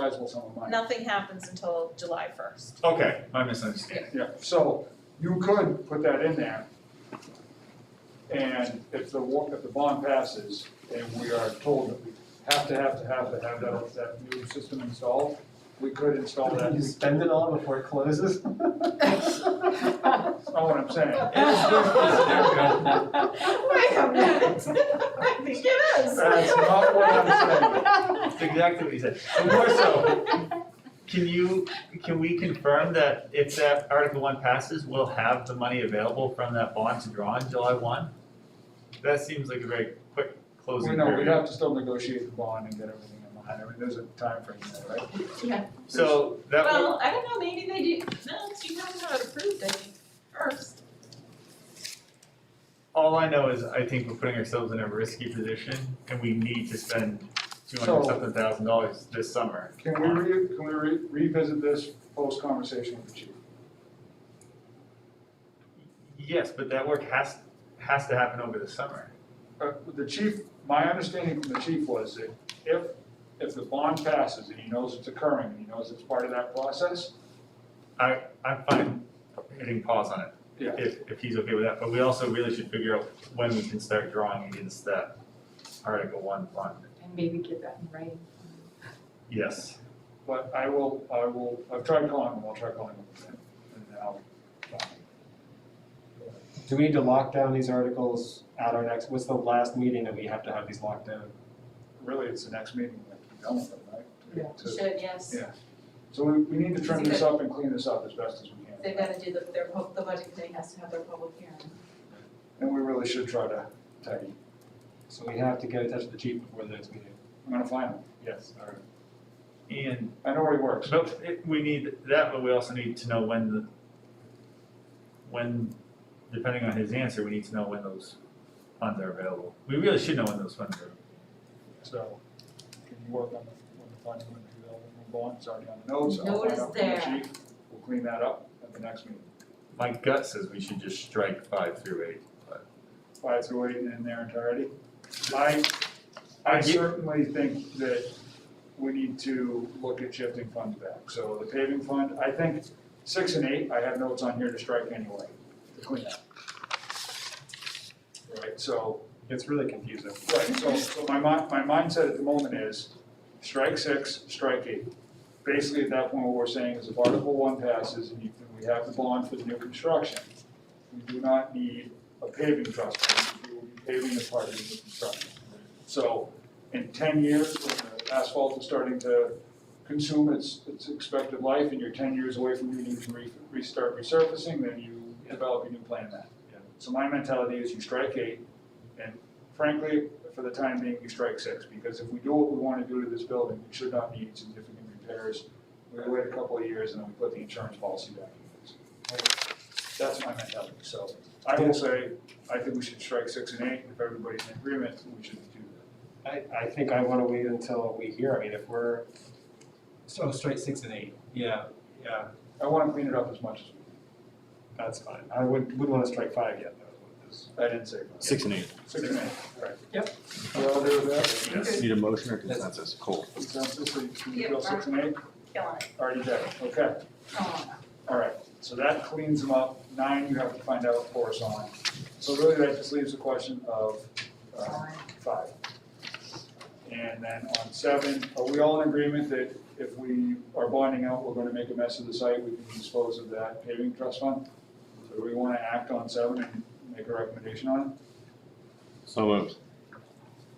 guys will some of mine. Nothing happens until July first. Okay, I misunderstand. Yeah, so you could put that in there. And if the wa, if the bond passes and we are told that we have to, have to, have to have that, that new system installed, we could install that. You spend it all before it closes? That's not what I'm saying. Wait a minute. I think it is. That's not what I'm saying. That's exactly what he said. And more so, can you, can we confirm that if that Article One passes, we'll have the money available from that bond to draw on July one? That seems like a very quick We closing know, we'd period. have to still negotiate the bond and get everything in line. I mean, there's a timeframe there, right? So that would, Well, I don't know, maybe they do, no, you have to have it approved, I think, first. all I know is I think we're putting ourselves in a risky position and we need to spend two So- hundred something thousand dollars this summer. Can we re, can we re- revisit this post-conversation with the chief? Yes, but that work has, has to happen over the summer. Uh, the chief, my understanding from the chief was that if, if the bond passes and he knows it's occurring, and he knows it's part of that process, I, I'm fine hitting pause on it. yeah. if, if he's okay with that, but we also really should figure out when we can start drawing against that Article One fund. And maybe get that in writing. Yes. But I will, I will, I've tried calling him, I'll try calling him again, and now. Do we need to lock down these articles at our next, what's the last meeting that we have to have these locked down? Really, it's the next meeting, like, you know, right? Yeah. To- should, yes. Yeah. So we, we need to trim this up and clean this up as best as we can. They've gotta do the, their, pub- the budget committee has to have their public hearing. And we really should try to tidy. So we have to get in touch with the chief before the next meeting. I'm gonna find him. Yes. All right. And, I know where he works. but it- we need that, but we also need to know when the, when, depending on his answer, we need to know when those funds are available. We really should know when those funds are. So, can you work on the, on the finding of the development bond, it's already on the notes, I'll Note find is out from the there. chief, we'll clean that up at the next meeting. My gut says we should just strike five through eight, but Five through eight in their entirety. I, I I get- certainly think that we need to look at shifting funds back, so the paving fund, I think six and eight, I have notes on here to strike anyway, to clean up. Right, so, It's really confusing. Right, so, so my mi- my mindset at the moment is strike six, strike eight. Basically, at that point, what we're saying is if Article one passes and you, and we have the bond for the new construction, we do not need a paving trust, fund. we will be paving as part of the new construction. So, in ten years, when the asphalt is starting to consume its, its expected life, and you're ten years away from needing to re- restart resurfacing, then you develop a new plan then. Yeah. So my mentality is you strike eight, and frankly, for the time being, you strike six, because if we do what we wanna do to this building, we should not need significant repairs. We wait a couple of years and then we put the insurance policy back in place. That's my mentality, so I will say, I think we should strike six and eight, and if everybody's in agreement, we should do I, I think I wanna wait until we hear, I mean, if we're, so straight six and eight. Yeah, yeah, that. I wanna clean it up as much as we that's fine. I would, wouldn't wanna strike five yet, though. can, I didn't say. Six and eight. Six and eight, right. Yep. We all do that, yes. Need a motion or consensus? Cool. consensus, so you can Yep. go six and eight, Killing it. already done, okay. Oh, All right, so that cleans them up. Nine, you have to find out for us on. So really, that just leaves the question of uh, fine. five. And then on seven, are we all in agreement that if we are bonding out, we're gonna make a mess of the site, we can dispose of that paving trust fund? So do we wanna act on seven and make a recommendation on So moved.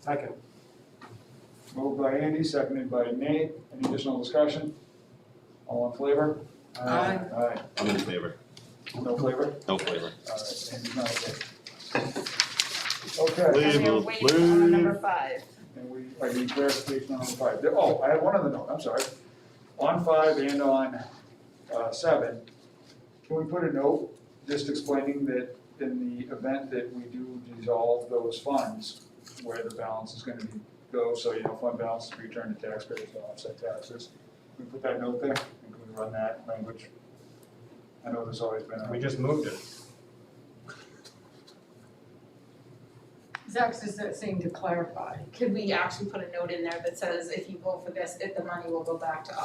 Second, it? Moved by Andy, seconded by Nate. Any additional discussion? All in flavor? Aye. Aye. I'm in favor. No flavor? No flavor. All right, Andy's not okay. uh, Okay. And we're Leave, waiting on number leave. five. And we, I need clarification on five. There- Oh, I had one other note, I'm sorry. On five and on uh, seven, can we put a note just explaining that in the event that we do dissolve those funds, where the balance is gonna be, go, so you know, fund balance is returned to taxpayers to offset taxes? Can we put that note there? And Can we run that language? I know there's always been we a, just moved it. Zach's just saying to clarify. Could we actually put a note in there that says if you vote for this, if the money will go back to